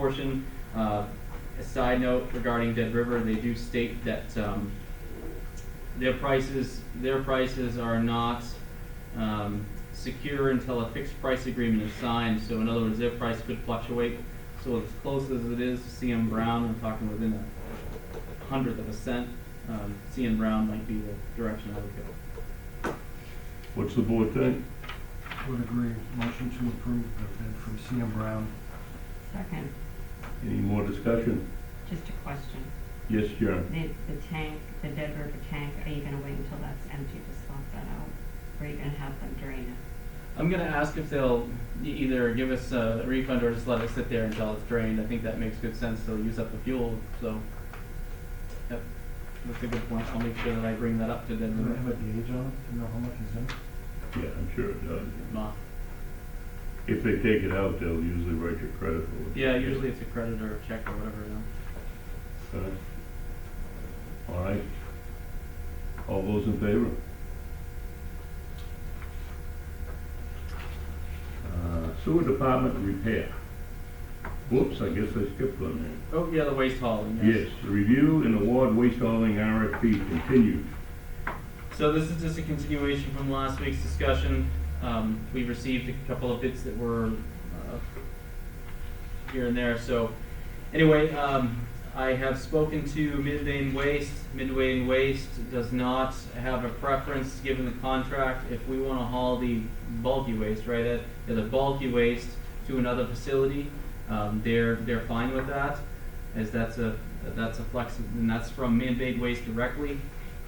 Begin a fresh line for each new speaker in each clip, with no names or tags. portion. Uh, a side note regarding Dead River, they do state that, um, their prices, their prices are not, um, secure until a fixed price agreement is signed, so in other words, their price could fluctuate. So as close as it is to CM Brown, I'm talking within a hundredth of a cent, um, CM Brown might be the direction I would go.
What's the board think?
Would agree. Motion to approve the bid from CM Brown.
Second,
Any more discussion?
just a question.
Yes, Sharon?
The, the tank, the Dead River tank, are you gonna wait until that's empty to swap that out? Or are you gonna have them drain
I'm gonna ask if they'll e- either give us a refund or just let it sit there until it's drained. I think that makes good sense. They'll use up the fuel, so. Yep, that's a good point. I'll make sure that I bring that up to
Does it
them.
have a gauge on it to know how much is in it?
Yeah, I'm sure it does.
Ma-
If they take it out, they'll usually write your credit for it.
Yeah, usually it's a credit or a check or whatever, you know.
Okay. All right. All those in favor? Uh, Sewer department repair. Whoops, I guess I skipped one there.
Oh, yeah, the waste hauling,
Yes, the review and award waste hauling RFP continued.
So this is just a continuation from last week's discussion. Um, we received a couple of bits that were, uh, here and there, so. Anyway, um, I have spoken to Midway and Waste. Midway and Waste does not have a preference given the contract. If we wanna haul the bulky waste, right, uh, the bulky waste to another facility, um, they're, they're fine with that. As that's a, that's a flex, and that's from Midway Waste directly.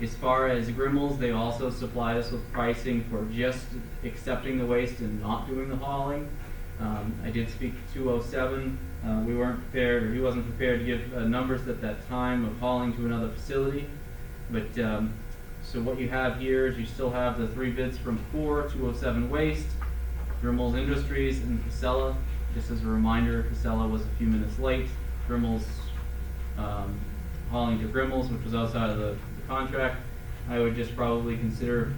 As far as Grimmels, they also supply us with pricing for just accepting the waste and not doing the hauling. Um, I did speak to 207, uh, we weren't prepared, or he wasn't prepared to give uh, numbers at that time of hauling to another facility. But, um, so what you have here is you still have the three bids from Core, 207 Waste, Grimmels Industries, and Casella. Just as a reminder, Casella was a few minutes late. Grimmels um, hauling to Grimmels, which was outside of the, the contract, I would just probably consider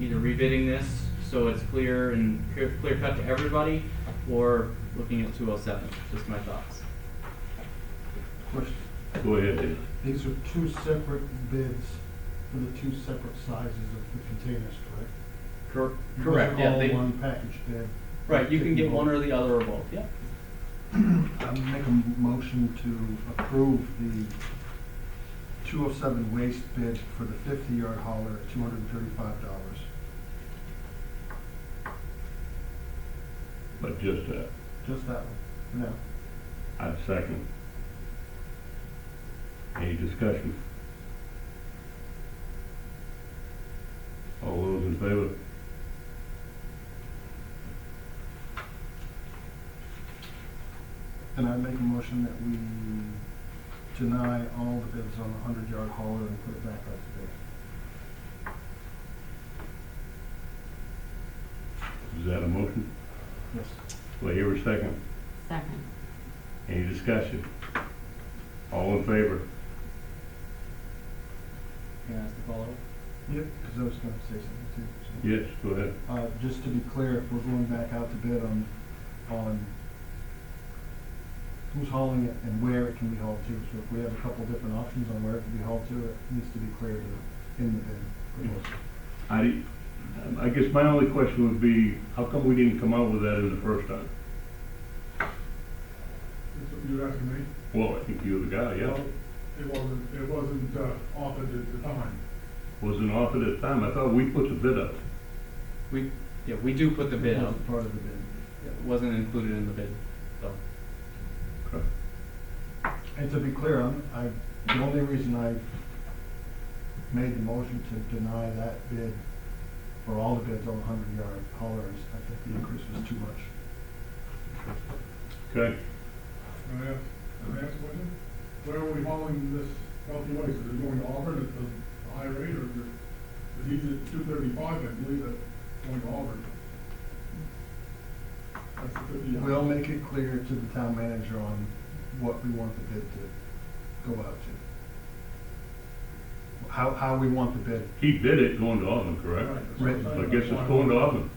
either rebidding this so it's clear and clear, clear cut to everybody, or looking at two oh seven, just my thoughts.
Question.
Go ahead, Dan.
These are two separate bids for the two separate sizes of the containers, correct?
Cor-
You
correct,
guys
yeah, they,
All one package bid.
right, you can get one or the other or both, yeah.
I make a motion to approve the two oh seven waste bid for the fifty yard hauler at two hundred and thirty-five dollars.
But just that,
Just that one, for now.
I second. Any discussion? All those in favor?
And I make a motion that we deny all the bids on the hundred yard hauler and put it back out to bid.
Is that a motion?
Yes.
Do I hear a second?
it? Second,
Any discussion? All in favor?
Can I ask the follow-up?
Yep. Because I was gonna say something too. so.
Yes, go ahead.
Uh, just to be clear, if we're going back out to bid on, on who's hauling it and where it can be hauled to. So if we have a couple different options on where it can be hauled to, it needs to be clear to, in the bid.
I, I guess my only question would be, how come we didn't come out with that in the first time?
That's what you're asking me?
Well, I think you're the guy, yeah.
Well, It wasn't, it wasn't uh, offered at the time.
Wasn't offered at the time. I thought we put the bid up.
We, yeah, we do put the bid
That
out,
was Part of the bid.
it wasn't included in the bid, so.
Okay.
And to be clear, I'm, I, the only reason I made the motion to deny that bid for all the bids on hundred yard haulers, I think the increase was too much.
Okay,
Can I ask, can I ask a question? Where are we hauling this bulky waste? Is it going to Auburn at the high rate or is it, if he's at two thirty-five, I believe it's going to Auburn? That's the fifty.
We'll make it clear to the town manager on what we want the bid to go out to. How, how we want the bid.
he bid it going to Auburn, correct?
Right, that's what I'm
Right.
saying.
I guess it's going to Auburn.